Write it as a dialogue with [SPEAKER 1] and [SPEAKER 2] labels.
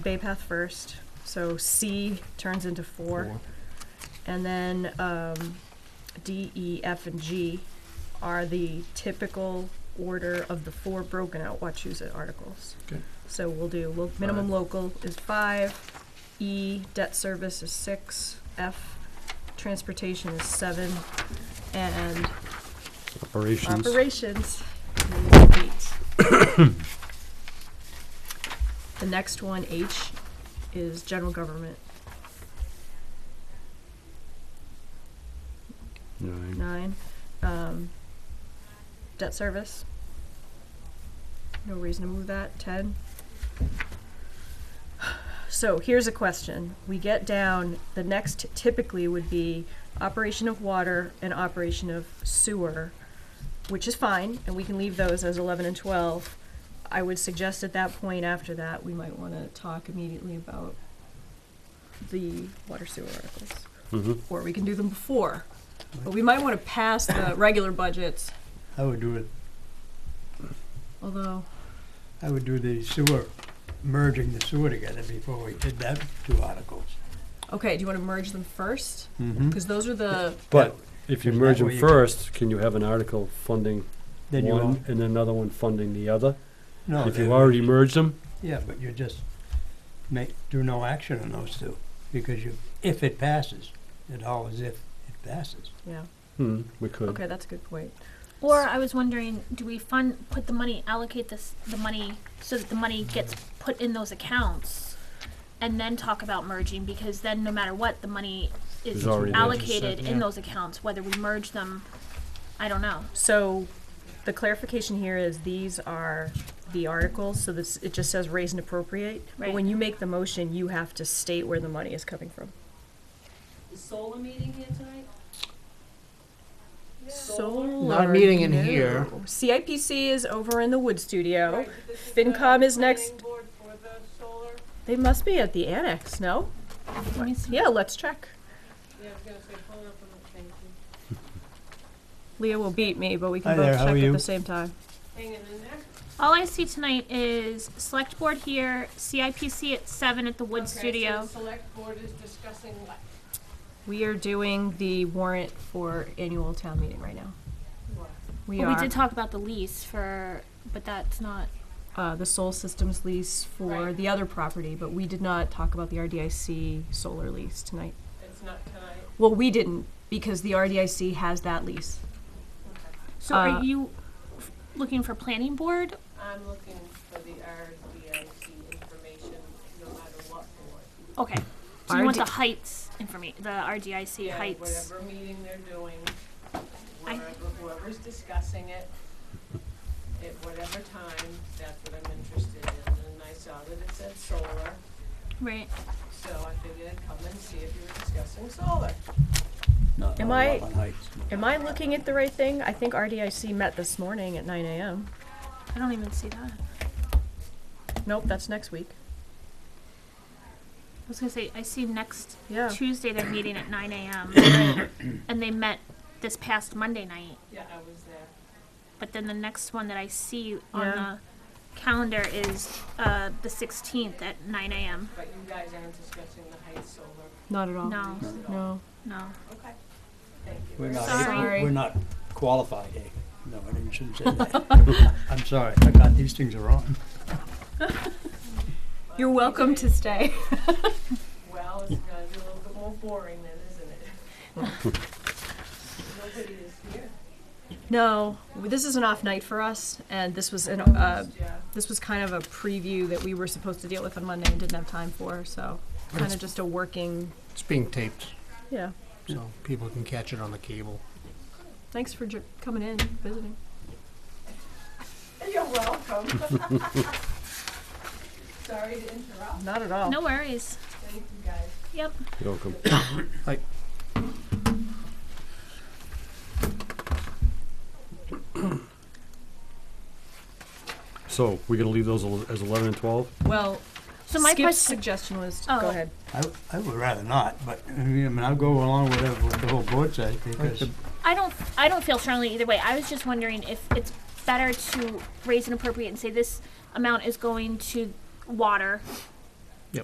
[SPEAKER 1] Bay Path first, so C turns into four. And then um, D, E, F, and G are the typical order of the four broken out Wachusett articles.
[SPEAKER 2] Okay.
[SPEAKER 1] So we'll do, well, minimum local is five, E, debt service is six, F, transportation is seven, and
[SPEAKER 3] Operations.
[SPEAKER 1] operations is eight. The next one, H, is general government,
[SPEAKER 3] Nine.
[SPEAKER 1] nine. Um, debt service. No reason to move that, ten. So here's a question. We get down, the next typically would be operation of water and operation of sewer, which is fine, and we can leave those as eleven and twelve. I would suggest at that point after that, we might wanna talk immediately about the water sewer articles
[SPEAKER 3] Mm-hmm.
[SPEAKER 1] or we can do them before. But we might want to pass the regular budgets,
[SPEAKER 2] I would do it,
[SPEAKER 1] although,
[SPEAKER 2] I would do the sewer, merging the sewer together before we did that two articles.
[SPEAKER 1] okay, do you want to merge them first?
[SPEAKER 2] Mm-hmm.
[SPEAKER 1] Because those are the,
[SPEAKER 3] But if you
[SPEAKER 2] Is that
[SPEAKER 3] merge them
[SPEAKER 2] where you-
[SPEAKER 3] first, can you have an article funding
[SPEAKER 2] Then you
[SPEAKER 3] one
[SPEAKER 2] won't,
[SPEAKER 3] and another one funding the other?
[SPEAKER 2] no.
[SPEAKER 3] If
[SPEAKER 2] then-
[SPEAKER 3] you already merged them,
[SPEAKER 2] Yeah, but you just make, do no action on those two, because you, if it passes, it always if it passes.
[SPEAKER 1] yeah,
[SPEAKER 3] hmm, we could.
[SPEAKER 1] okay, that's a good point.
[SPEAKER 4] Or I was wondering, do we fund, put the money, allocate this, the money, so that the money gets put in those accounts? And then talk about merging, because then no matter what, the money
[SPEAKER 3] Is
[SPEAKER 4] is
[SPEAKER 3] already there.
[SPEAKER 4] allocated
[SPEAKER 2] Yeah.
[SPEAKER 4] in those accounts, whether we merge them, I don't know.
[SPEAKER 1] So the clarification here is these are the articles, so this, it just says raise and appropriate. But
[SPEAKER 4] Right.
[SPEAKER 1] when you make the motion, you have to state where the money is coming from.
[SPEAKER 5] Is Solar meeting here tonight?
[SPEAKER 1] Solar,
[SPEAKER 6] meeting in
[SPEAKER 1] no.
[SPEAKER 6] here.
[SPEAKER 1] CIPC is over in the Wood Studio.
[SPEAKER 5] Right, but this is
[SPEAKER 1] FinCom
[SPEAKER 5] the
[SPEAKER 1] is next.
[SPEAKER 5] planning board for the solar?
[SPEAKER 1] They must be at the annex, no?
[SPEAKER 4] Let me see.
[SPEAKER 1] Yeah, let's check.
[SPEAKER 5] Yeah, I was gonna say, hold up a minute, thank you.
[SPEAKER 1] Leah will beat me, but we
[SPEAKER 2] Hi
[SPEAKER 1] can
[SPEAKER 2] there,
[SPEAKER 1] both
[SPEAKER 2] how
[SPEAKER 1] check
[SPEAKER 2] are
[SPEAKER 1] at
[SPEAKER 2] you?
[SPEAKER 1] the same time.
[SPEAKER 5] Hanging in there?
[SPEAKER 4] All I see tonight is select board here, CIPC at seven at the Wood
[SPEAKER 5] Okay, so
[SPEAKER 4] Studio.
[SPEAKER 5] the select board is discussing what?
[SPEAKER 1] We are doing the warrant for annual town meeting right now. We
[SPEAKER 4] But
[SPEAKER 1] are,
[SPEAKER 4] we did talk about the lease for, but that's not,
[SPEAKER 1] uh, the Soul Systems lease for
[SPEAKER 5] Right.
[SPEAKER 1] the other property, but we did not talk about the RDIC solar lease tonight.
[SPEAKER 5] It's not tonight.
[SPEAKER 1] Well, we didn't, because the RDIC has that lease.
[SPEAKER 4] so
[SPEAKER 1] Uh,
[SPEAKER 4] are you f- looking for planning board?
[SPEAKER 5] I'm looking for the RDIC information, no matter what board.
[SPEAKER 4] Okay, so you want the
[SPEAKER 1] RD
[SPEAKER 4] heights information, the RDIC
[SPEAKER 5] Yeah,
[SPEAKER 4] heights.
[SPEAKER 5] Whatever meeting they're doing,
[SPEAKER 4] I-
[SPEAKER 5] wherever, whoever's discussing it, at whatever time, that's what I'm interested in. And I saw that it said solar.
[SPEAKER 4] Right.
[SPEAKER 5] So I figured I'd come and see if you were discussing solar.
[SPEAKER 2] Not
[SPEAKER 1] Am
[SPEAKER 2] all
[SPEAKER 1] I-
[SPEAKER 2] up on heights.
[SPEAKER 1] Am I looking at the right thing? I think RDIC met this morning at nine AM.
[SPEAKER 4] I don't even see that. I
[SPEAKER 1] Nope, that's next week.
[SPEAKER 4] was gonna say I see next
[SPEAKER 1] Yeah.
[SPEAKER 4] Tuesday they're meeting at 9 a.m. and they met this past Monday night.
[SPEAKER 5] Yeah, I was there.
[SPEAKER 4] But then the next one that I see on
[SPEAKER 1] Yeah.
[SPEAKER 4] the calendar is uh, the 16th at 9 a.m.
[SPEAKER 5] But you guys aren't discussing the height solar.
[SPEAKER 1] Not at all.
[SPEAKER 4] No,
[SPEAKER 1] No.
[SPEAKER 4] no.
[SPEAKER 5] Okay. Thank you.
[SPEAKER 2] We're
[SPEAKER 5] very
[SPEAKER 2] not,
[SPEAKER 5] much.
[SPEAKER 4] Sorry.
[SPEAKER 2] we're not qualified, eh? No, I didn't, shouldn't say that. I'm sorry, I got, these things are on.
[SPEAKER 1] You're welcome to stay.
[SPEAKER 5] Well, it's gonna be a little bit more boring then, isn't it? Nobody is here.
[SPEAKER 1] No, this is an off night for us, and this was an, uh,
[SPEAKER 5] Yeah.
[SPEAKER 1] this was kind of a preview that we were supposed to deal with on Monday and didn't have time for, so kind of just a working,
[SPEAKER 6] It's being taped,
[SPEAKER 1] yeah.
[SPEAKER 6] so people can catch it on the cable.
[SPEAKER 1] Thanks for ju- coming in, visiting.
[SPEAKER 5] You're welcome. Sorry to interrupt.
[SPEAKER 1] Not at all.
[SPEAKER 4] No worries.
[SPEAKER 5] Thank you guys.
[SPEAKER 4] Yep.
[SPEAKER 3] You're welcome. So we're gonna leave those al- as eleven and twelve?
[SPEAKER 1] Well,
[SPEAKER 4] So my
[SPEAKER 1] Skip's
[SPEAKER 4] question.
[SPEAKER 1] suggestion was,
[SPEAKER 4] Oh.
[SPEAKER 1] go ahead.
[SPEAKER 2] I, I would rather not, but, I mean, I mean, I'll go along with whatever the whole board says, because
[SPEAKER 4] I don't I don't feel strongly either way. I was just wondering if it's better to raise an appropriate and say this amount is going to water